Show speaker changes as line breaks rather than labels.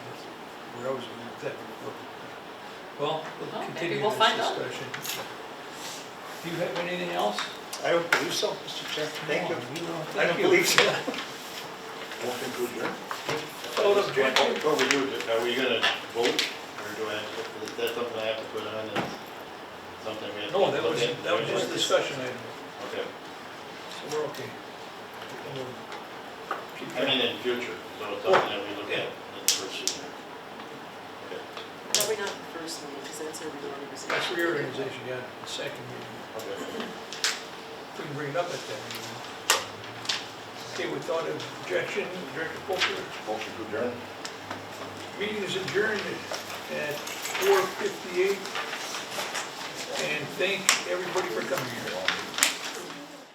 erosion and that. Well, we'll
Well, maybe
continue
we'll
this
find out.
discussion. Do you have anything else?
I don't believe so, Mr. Chair. Thank you.
No, we
I don't believe so.
Motion to adjourn?
Oh, that's
Jack,
good.
What were you, are we gonna vote, or do I, have to put- is that something I have to put on, and something we have to
No,
look
that
at?
was, that was just a discussion item,
Okay,
so we're okay. And we'll keep
I
that.
mean, in future, so it's something that we look at in the first year. Okay,
Probably not the first meeting, because that's a reorganization.
That's reorganization, yeah, the second meeting,
okay.
we can bring it up at that meeting. Okay, without objection, Director Polter,
Motion to adjourn?
meeting is adjourned at four fifty-eight. And thank everybody for coming here.